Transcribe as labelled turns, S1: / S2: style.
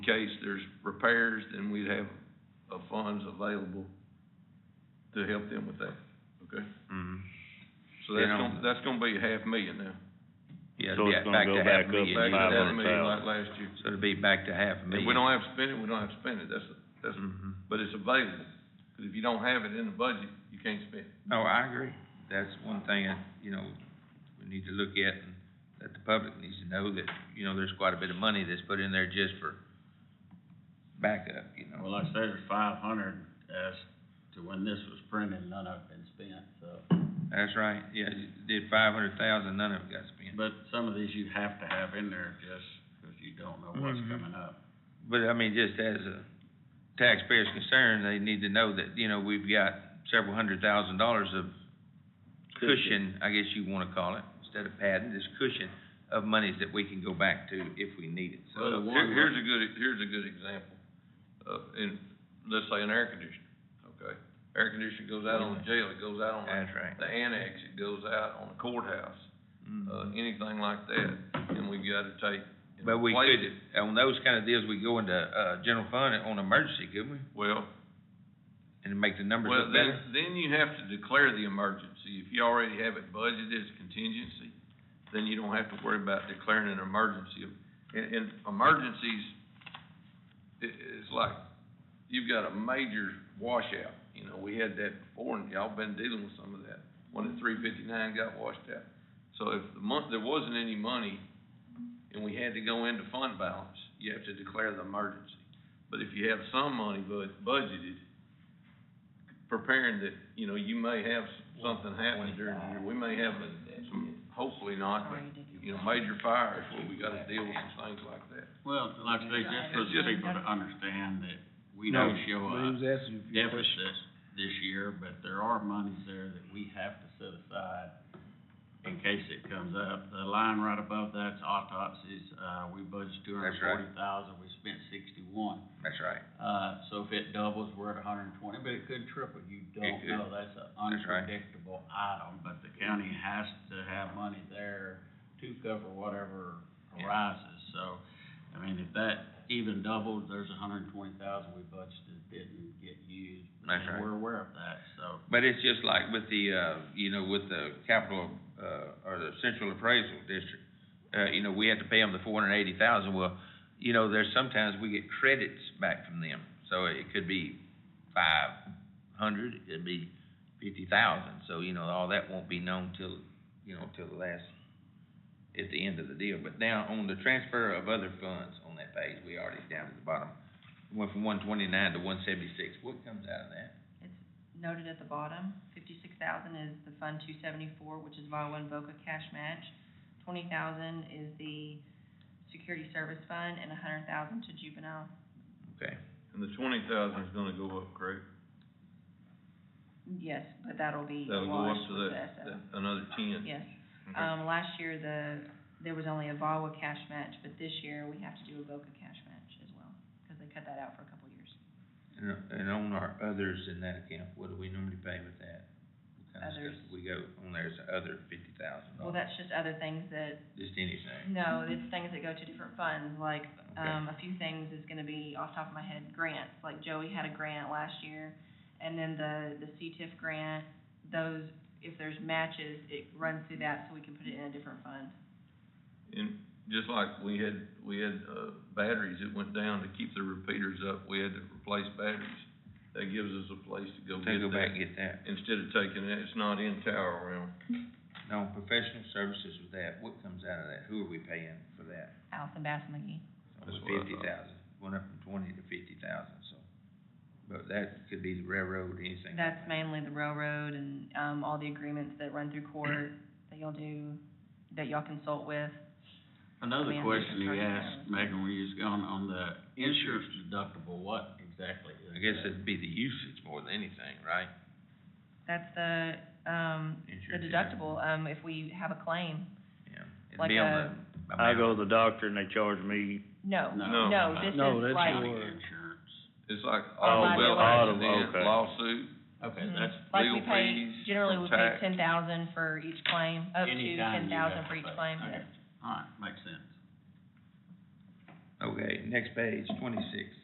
S1: in case there's repairs, then we'd have, uh, funds available to help them with that, okay?
S2: Mm-hmm.
S1: So that's
S3: Yeah.
S1: gonna, that's gonna be a half million now,
S3: Yeah,
S2: So
S3: it'll
S2: it's
S3: be at- back
S2: gonna go
S3: to
S2: back
S3: half
S2: up
S3: a million.
S1: back to
S2: Five
S1: half
S2: hundred
S1: million like
S2: thousand.
S1: last year.
S3: So it'll be back to half a
S1: If we
S3: million.
S1: don't have to spend it, we don't have to spend it, that's, that's,
S2: Mm-hmm.
S1: but it's available, 'cause if you don't have it in the budget, you can't spend it.
S3: No, Oh, I agree. That's one thing that, you know, we need to look at and that the public needs to know that, you know, there's quite a bit of money that's put in there just for backup, you know.
S4: Well, like I said, there's five hundred as to when this was printed, none of it been spent, so.
S3: That's right. Yeah, you did five hundred thousand, none of it got spent.
S4: But some of these you have to have in there just because you don't know what's
S3: Mhm.
S4: coming up.
S3: But I mean, just as a taxpayer's concern, they need to know that, you know, we've got several hundred thousand dollars of cushion, I guess you wanna call it, instead of padding, this cushion of monies that we can go back to if we need it, so.
S1: Well, here, here's a good, here's a good example, uh, in, let's say an air conditioner, okay? Air conditioner goes out on the jail, it goes out on the-
S3: That's right.
S1: the annex, it goes out on the courthouse, uh,
S3: Mhm.
S1: anything like that, and we've gotta take. and
S3: But we
S1: replace
S3: could,
S1: it.
S3: on those kinda deals, we go into, uh, general fund on emergency, couldn't we?
S1: Well,
S3: And make the numbers
S1: well,
S3: look
S1: then,
S3: better?
S1: then you have to declare the emergency, if you already have it budgeted as contingency, then you don't have to worry about declaring an emergency. And, and emergencies, i- is like, you've got a major washout, you know, we had that before, and y'all been dealing with some of that, one at three fifty-nine got washed out. So if the month, there wasn't any money, and we had to go into fund balance, you have to declare the emergency. But if you have some money bud- budgeted, preparing that, you know, you may have something happen during the year, we may have a- some, hopefully not, but, you know, major fires where we gotta deal with some things like that.
S4: Well, like I say, just for
S1: It's
S4: the
S1: just-
S4: people to understand that we don't show a deficit this year, but there are monies there that we have to set aside in case it comes up. The line right above that's autopsies, uh, we budgeted two hundred
S3: That's
S4: and
S3: right.
S4: forty thousand, we spent sixty-one.
S3: That's right.
S4: Uh, so if it doubles, we're at hundred and twenty, but it could triple, you don't
S3: could.
S4: know, that's an
S3: That's right.
S4: unpredictable item, but the county has to have money there to cover whatever
S3: Yeah.
S4: arises, so, I mean, if that even doubled, there's a hundred and twenty thousand we budgeted didn't get used.
S3: That's
S4: and
S3: right.
S4: We're aware of that, so,
S3: But it's just like with the, uh, you know, with the capital, uh, or the central appraisal district, uh, you know, we have to pay them the four hundred and eighty thousand, well, you know, there's sometimes we get credits back from them, so it could be five hundred, it could be fifty thousand, so, you know, all that won't be known till, you know, till the last, at the end of the deal, but now on the transfer of other funds on that page, we already down at the bottom, went from one twenty-nine to one seventy-six, what comes out of that?
S5: It's noted at the bottom, fifty-six thousand is the Fund two seventy-four, which is Viola and Boca cash match. Twenty thousand is the Security Service Fund and a hundred thousand to juvenile.
S3: Okay.
S1: And the twenty thousand is gonna go up, correct?
S5: Yes, but that'll be
S1: That'll go up
S5: washed
S1: to
S5: with the
S1: that, Mm-hmm.
S5: SO.
S1: that- another ten.
S5: Yes.
S1: Okay.
S5: Um, last year, the, there was only a VAWA cash match, but this year we have to do a Boca cash match as well, because they cut that out for a couple of years.
S3: And, and on our others in that account, what do we normally pay with that? What kind of
S5: Others.
S3: stuff do We go, on there's other fifty thousand
S1: Oh.
S5: Well,
S3: dollars,
S5: that's just other things that
S3: just anything.
S5: No, it's things that go to different funds, like,
S3: Okay.
S5: um, a few things is gonna be off the top of my head, grants, like Joey had a grant last year, and then the, the CTIF grant, those, if there's matches, it runs through that, so we can put it in a different fund.
S1: And just like we had, we had, uh, batteries that went down to keep the repeaters up, we had to replace batteries. That gives us a place to go
S3: To
S1: get
S3: go back and
S1: that,
S3: get that.
S1: instead of taking it, it's not in tower realm.
S3: No, professional services with that, what comes out of that? Who are we paying for that?
S5: Allison Bass McGee.
S1: That's what I thought.
S3: Fifty thousand, went up from twenty to fifty thousand, so. But that could be the railroad, anything like
S5: That's
S3: that.
S5: mainly the railroad and, um, all the agreements that run through court, that y'all do, that y'all consult with.
S4: another
S5: Man,
S4: question
S5: we
S4: you
S5: can
S4: asked,
S5: try to-
S4: Megan, were you just going on the insurance deductible, what exactly is
S3: I guess
S4: that?
S3: it'd be the usage more than anything, right?
S5: That's the, um, the
S3: Insurance, yeah.
S5: deductible, um, if we have a claim.
S3: Yeah. It'd
S5: Like
S3: be on
S5: a-
S3: the
S2: I
S3: amount.
S2: go to the doctor and they charge me,
S5: No,
S1: No.
S5: no, this
S2: No,
S5: is
S2: that's
S5: like.
S4: County
S2: Sure.
S4: insurance.
S1: It's like
S2: Oh,
S1: auto
S5: well,
S1: bill
S2: auto,
S1: accident,
S2: okay.
S1: lawsuit,
S4: Okay,
S5: Mhm.
S4: that's
S5: Like
S1: legal
S5: we pay,
S1: fees,
S5: generally we pay
S1: tax.
S5: ten thousand for each claim, up to
S4: Anytime
S5: ten
S4: you
S5: thousand
S4: have
S5: for
S4: to
S5: each
S4: pay.
S5: claim,
S4: Okay.
S5: yes.
S4: All right, makes sense.
S3: Okay, next page, twenty-six.